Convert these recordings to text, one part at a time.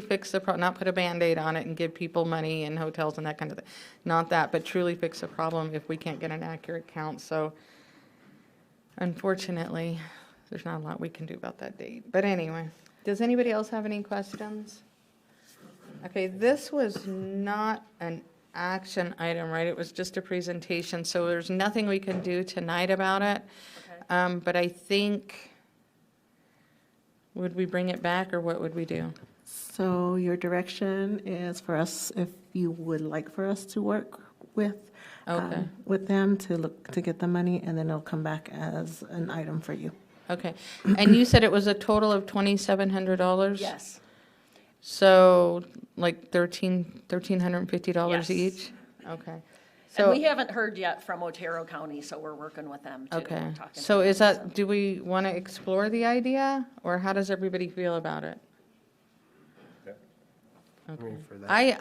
fix the, pro- not put a Band-Aid on it and give people money and hotels and that kind of thing. Not that, but truly fix the problem if we can't get an accurate count. So unfortunately, there's not a lot we can do about that date. But anyway, does anybody else have any questions? Okay, this was not an action item, right? It was just a presentation, so there's nothing we can do tonight about it. Um, But I think, would we bring it back, or what would we do? So your direction is for us, if you would like for us to work with, um, Okay. with them to look, to get the money, and then it'll come back as an item for you. Okay, and you said it was a total of twenty-seven hundred dollars? Yes, So, like thirteen, thirteen hundred and fifty dollars Yes. each? Okay. and So we haven't heard yet from Otero County, so we're working with them too. Okay, talking to so them, is that, do we want to explore the idea, or how does everybody feel about it? mean, for that. I,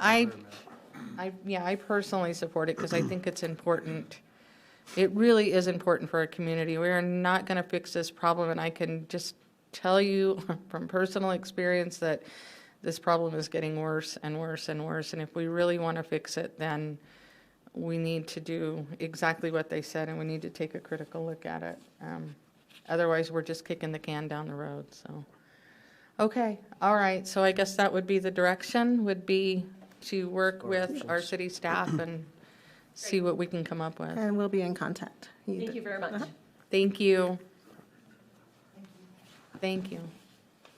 I, I, yeah, I personally support it because I think it's important. It really is important for our community. We are not going to fix this problem, and I can just tell you from personal experience that this problem is getting worse and worse and worse. And if we really want to fix it, then we need to do exactly what they said, and we need to take a critical look at it. Um, Otherwise, we're just kicking the can down the road, so. Okay, all right, so I guess that would be the direction, would be to work with our city staff and see what we can come up with. And we'll be in contact. Thank you very much. Thank you. Thank you.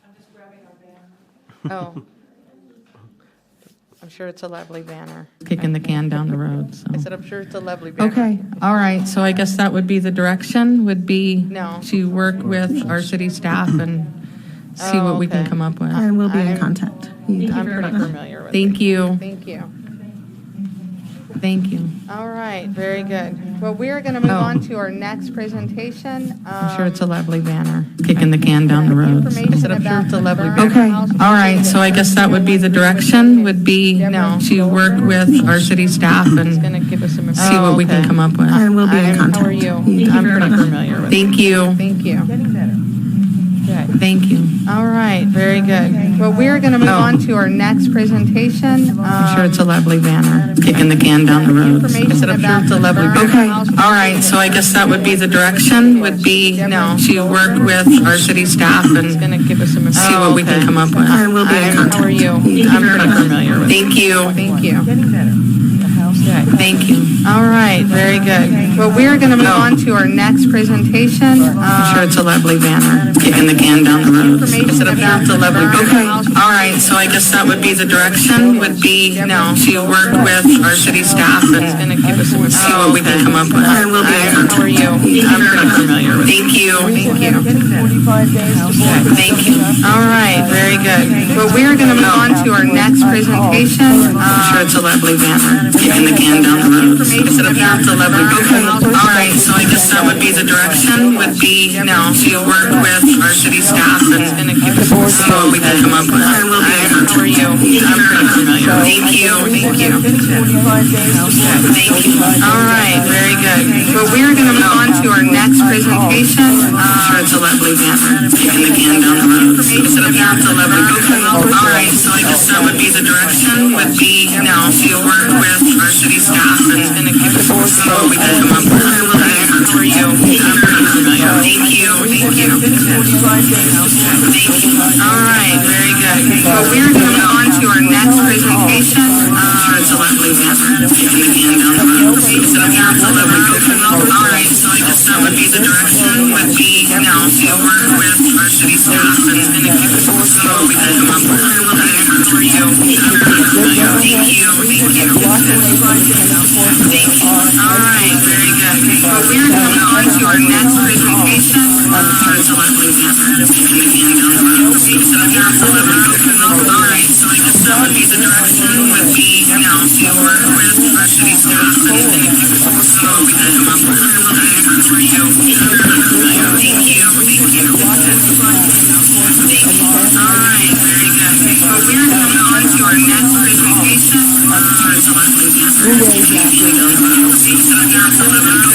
I'm just grabbing our banner. Oh. I'm sure it's a lovely banner. Kicking the can down the road, so. I said, I'm sure it's a lovely banner. Okay, all right, so I guess that would be the direction, would be No. to work with our city staff and see what we can okay. come up with. And we'll be in contact. You- I'm pretty familiar with it. Thank you, Thank you. thank you. All right, very good. Well, we are going to move Oh. on to our next presentation. uh, I'm sure it's a lovely banner, kicking the can down the road. so. Information about the burn Okay, house all right, so I guess that would be the direction, would be No. to work with our city staff and Going to give us some. see what we can come up with. And we'll be in I'm- contact. Oh, how are you? You- I'm I'm pretty pretty- familiar with it. Thank you, Thank you. thank you. All right, very good. Well, we are going to move Oh. on to our next presentation. I'm sure it's a lovely banner, kicking the can down the road. so. Information about the burn Okay, house all right, so I guess that would be the direction, would be No. to work with our city staff and Going to give us some. see what we can come up with. And we'll be in I'm- How are contact. you? I'm pretty familiar with it. Thank you, Thank you. thank you. All right, very good. Well, we are going to move on to our next presentation. I'm Um, sure it's a lovely banner, kicking the can down the road. so. Information I'm sure about it's a the lovely burn banner. house. All right, so I guess that would be the direction, would be to work with our city staff and see what we can come up with. And we'll be in contact. How are you? I'm pretty familiar with it. Thank you. Thank you. Thank you. All right, very good. Well, we are going to move on to our next presentation. I'm sure Um, it's a lovely banner, kicking the can down the road. Is it a banner? It's a lovely banner. All right, so I guess that would be the direction, would be to work with our city staff and see what we can come up with. I will be How are you? I'm pretty familiar. Thank you, thank you. Thank you. All right, very good. Well, we are going to move on to our next presentation. I'm sure it's a lovely banner, kicking the can down the road. Is it a banner? It's a lovely banner. All right, so I guess that would be the direction, would be to work with our city staff and see what we can come up with. I will be How are you? I'm pretty familiar. Thank you, thank you. Thank you. All right, very good. Well, we are going to move on to our next presentation. Um, I'm sure it's a lovely banner, kicking the can down the road. Is it a banner? It's a lovely banner. All right, so I guess that would be the direction, would be to work with our city staff and see what we can come up with. I will be How are you? I'm pretty familiar. Thank you, thank you. Thank you. All right, very good. Well, we're going to on to our next presentation. Uh, it's a lovely banner. It's a lovely banner. All right, so I guess that would be the direction would be now to work with our city staff and so we can come up with a little for you. Thank you, thank you. Thank you. All right, very good. Well, we're going to on to our next presentation. Uh, it's a lovely banner. It's a lovely banner.